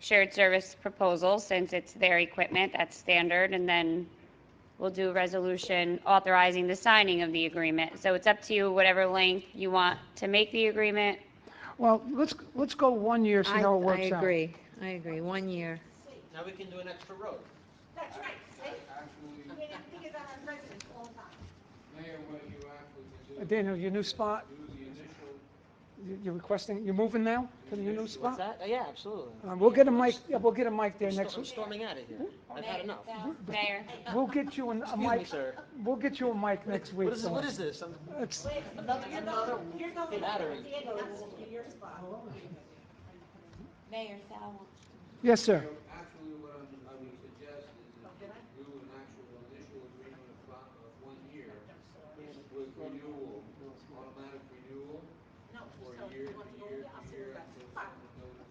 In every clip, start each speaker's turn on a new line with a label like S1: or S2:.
S1: shared service proposal, since it's their equipment, that's standard, and then we'll do a resolution authorizing the signing of the agreement. So it's up to you, whatever length you want to make the agreement.
S2: Well, let's, let's go one year, see
S3: I,
S2: how it works
S3: I
S2: out.
S3: agree, I agree, one year.
S4: Now we can do an extra road.
S5: That's right, see?
S6: Actually,
S5: We didn't think about our residents all the time.
S6: Mayor, what you actually
S2: Uh,
S6: can do,
S2: Daniel, your new spot,
S6: do the initial,
S2: you- you're requesting, you're moving now to your new
S4: What's
S2: spot?
S4: that? Yeah, absolutely.
S2: Uh, We'll get a mic, yeah, we'll get a mic there
S4: I'm
S2: next
S4: sto- I'm
S2: week. Hmm?
S4: storming out of here. I've had enough.
S1: Mayor?
S2: We'll get you an- a
S4: Excuse me,
S2: mic,
S4: sir.
S2: we'll get you a mic next week.
S4: What is,
S2: so-
S4: what is this? I'm-
S2: It's-
S5: Wait,
S4: Another-
S5: you're
S4: another
S5: going, you're going
S4: battery.
S5: to Diego, that's your spot.
S7: Mayor Sal,
S2: Yes, sir.
S6: actually what I'm, I would suggest is if you do an actual initial agreement of, fi- of one year with renewal, automatic renewal for a year, to year, to year, until someone notices.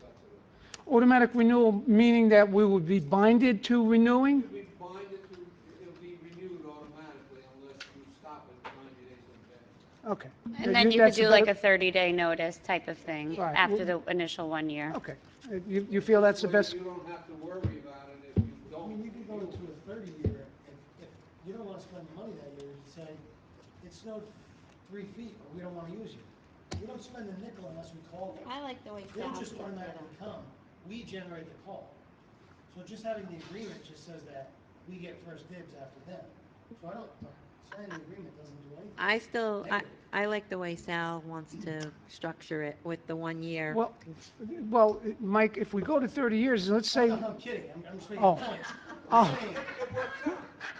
S6: that's it.
S2: Automatic renewal, meaning that we would be binded to renewing?
S6: It'll be binded to, it'll be renewed automatically unless you stop it ninety days in advance.
S2: Okay.
S1: And then you could
S2: that's
S1: do like a
S2: better-
S1: 30-day notice type of thing
S2: Right.
S1: after the initial one year.
S2: Okay. Uh, You, you feel that's the
S6: So
S2: best?
S6: You don't have to worry about it if you
S8: I
S6: don't.
S8: mean, you could go
S6: renew
S8: into
S6: it.
S8: a thirty year, if, if you don't wanna spend the money that year, you say, it snowed three feet, or we don't wanna use you. We don't spend a nickel unless we call them.
S7: I like the way
S8: They
S7: Sal
S8: don't
S7: did
S8: just
S7: that.
S8: automatically come, we generate the call. So just having the agreement just says that we get first dibs after them. So I don't, signing the agreement doesn't do anything.
S3: I still, I, I like the way Sal wants to structure it with the one year.
S2: Well, well, Mike, if we go to 30 years, let's say,
S8: No, no, I'm kidding, I'm, I'm just making
S2: Oh.
S8: points. I'm
S2: oh,
S8: saying, you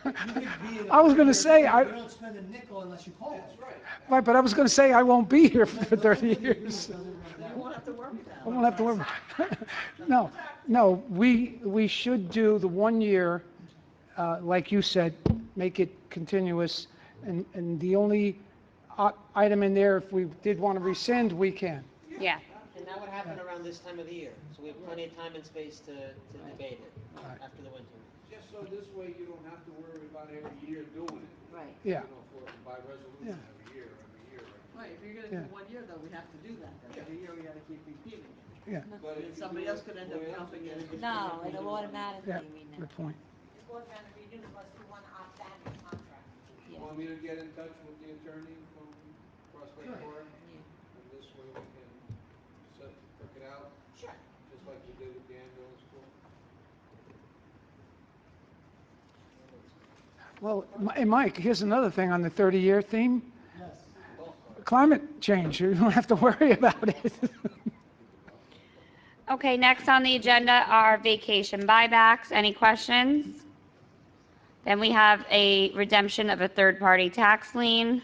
S8: could be in a
S2: I was gonna
S8: 30-year
S2: say,
S8: agreement,
S2: I-
S8: We don't spend a nickel unless you call us.
S6: That's right.
S2: right, but I was going to say I won't be here for
S8: But that's
S2: 30
S8: what the agreement
S2: years.
S8: doesn't work
S4: You
S8: out.
S4: won't have to worry about
S2: I won't have to worry. about it. No, no, we, we should do the one year, uh, like you said, make it continuous. And, and the only i- item in there, if we did want to rescind, we can.
S1: Yeah.
S4: it. And that would happen around this time of the year, so we have plenty of time and space to, to debate it
S2: Right.
S4: after the winter.
S6: Just so this way you don't have to worry about every year doing it.
S7: Right.
S2: Yeah.
S6: You know, for, by resolution every year, every year.
S9: Right, if you're gonna
S2: Yeah.
S9: do one year though, we have to do that, then every year we gotta keep repeating it.
S6: But if
S9: And
S6: you
S9: somebody
S6: do it
S9: else could end
S6: way
S9: up
S6: up
S9: jumping
S6: against
S9: in.
S7: No, it'll automatically
S2: Yeah,
S7: renew.
S2: good point.
S5: It's going down to renew unless we want to opt out of the contract.
S7: Yeah.
S6: Want me to get in touch with the attorney from Prospect
S8: Sure.
S6: Park? And this way we can set, work it out,
S5: Sure.
S6: just like we did with the ambulance corps.
S2: Well, Mi- hey, Mike, here's another thing on the 30 year theme.
S8: Yes.
S2: Climate change, you don't have to worry about it.
S1: Okay, next on the agenda are vacation buybacks. Any questions? Then we have a redemption of a third-party tax lien.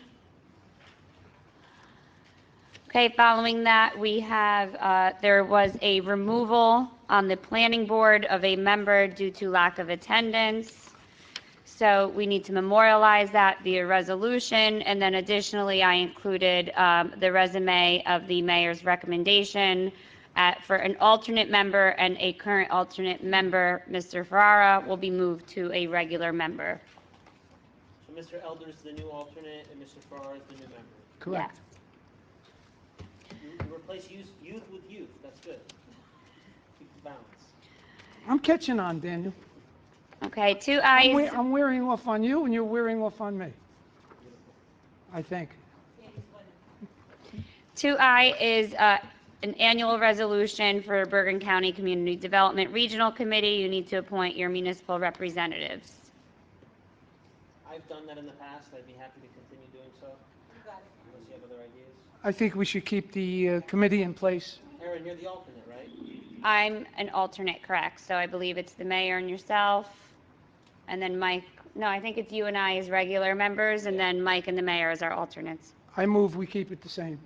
S1: Okay, following that, we have, uh, there was a removal on the planning board of a member due to lack of attendance. So we need to memorialize that via resolution. And then additionally, I included um, the resume of the mayor's recommendation at- for an alternate member and a current alternate member. Mr. Ferrara will be moved to a regular member.
S4: So Mr. Elder's the new alternate, and Mr. Farrar is the new member.
S2: Correct.
S4: You you replace youth, youth with youth, that's good. Keep the balance.
S2: I'm catching on, Daniel.
S1: Yeah. Okay, two
S2: I'm
S1: eyes.
S2: we- I'm wearing off on you and you're wearing off on me. I think.
S1: Two I is uh, an annual resolution for Bergen County Community Development Regional Committee. You need to appoint your municipal representatives.
S4: I've done that in the past, I'd be happy to continue doing so,
S5: You got it.
S4: unless you have other ideas.
S2: I think we should keep the uh, committee in place.
S4: Aaron, you're the alternate, right?
S1: I'm an alternate, correct? So I believe it's the mayor and yourself, and then Mike, no, I think it's you and I as regular members, and then Mike and the mayor as our alternates.
S2: I move we keep it the same.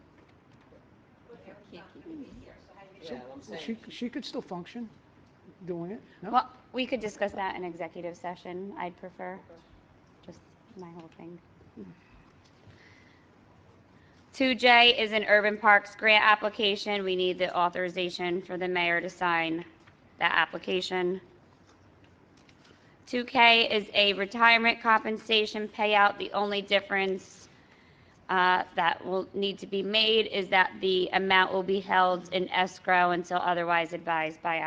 S5: But Eric's
S7: Yeah.
S5: not gonna be here, so how do you?
S4: Yeah, I'm saying.
S2: She, she could still function doing it, no?
S1: Well, we could discuss that in executive session, I'd prefer, just my whole thing. 2J is an urban parks grant application. We need the authorization for the mayor to sign that application. 2K is a retirement compensation payout. The only difference uh, that will need to be made is that the amount will be held in escrow until otherwise advised by our